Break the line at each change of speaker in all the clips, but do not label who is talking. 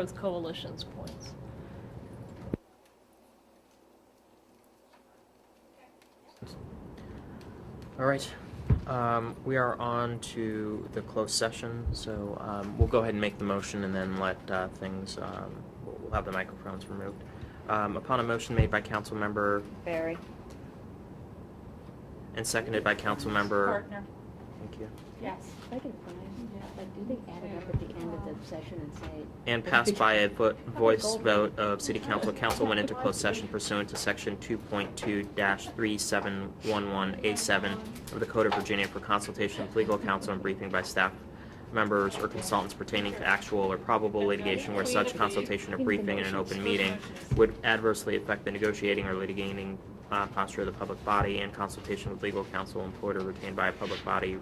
Growth Coalition's points.
All right, um, we are on to the closed session, so, um, we'll go ahead and make the motion and then let, uh, things, um, we'll we'll have the microphones removed. Um, upon a motion made by council member
Barry.
and seconded by council member.
Partner,
Thank you.
yes.
I can find, like, do they add it up at the end of the session and say?
And passed by a vo- voice vote of city council, council went into closed session pursuant to section two point two three seven one one A seven of the Code of Virginia for consultation with legal counsel and briefing by staff members or consultants pertaining to actual or probable litigation where such consultation or briefing in an open meeting would adversely affect the negotiating or litigating uh, posture of the public body and consultation with legal counsel employed or retained by a public body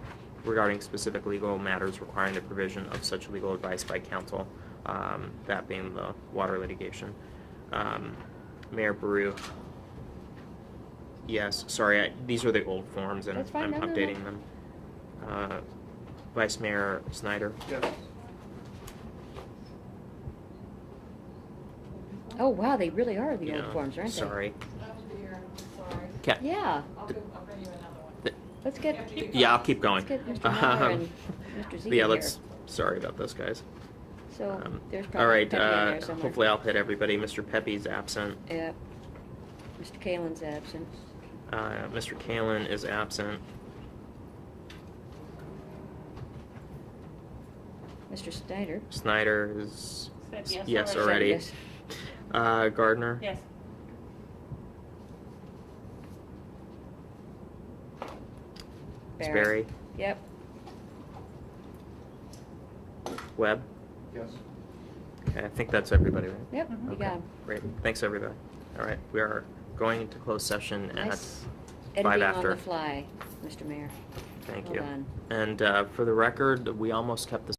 regarding specific legal matters requiring the provision of such legal advice by counsel, um, that being the water litigation. Um, Mayor Baru. Yes, sorry, I, these are the old forms and
That's fine,
I'm
no, no, no.
updating them. Uh, Vice Mayor Snyder,
Yes.
Oh, wow, they really are the
Yeah,
old forms, aren't they?
sorry.
That was weird, I'm sorry.
Ca-
Yeah,
I'll go, I'll bring you another one.
let's get,
Keep
Yeah, I'll
going.
keep going.
let's get Mr. Miller
Um,
and Mr. Z
Yeah,
here.
let's, sorry about this, guys.
So
Um,
there's
All
probably
right,
Pepe in
uh,
there somewhere.
hopefully I'll hit everybody. Mr. Pepe's absent.
Yep. Mr. Kalen's absent.
Uh, Mr. Kalen is absent.
Mr. Snyder.
Snyder is,
Said yes
Yes,
already.
already.
Yes.
uh, Gardner.
Yes.
It's
Barry.
Barry.
Yep.
Webb.
Yes.
Okay, I think that's everybody, right?
Yep, you
Okay,
got him.
Great, thanks, everybody. All right, we are going into closed session at,
Nice
five
Editing on
after.
the fly, Mr. Mayor.
thank
Hold
you.
on.
And uh, for the record, we almost kept the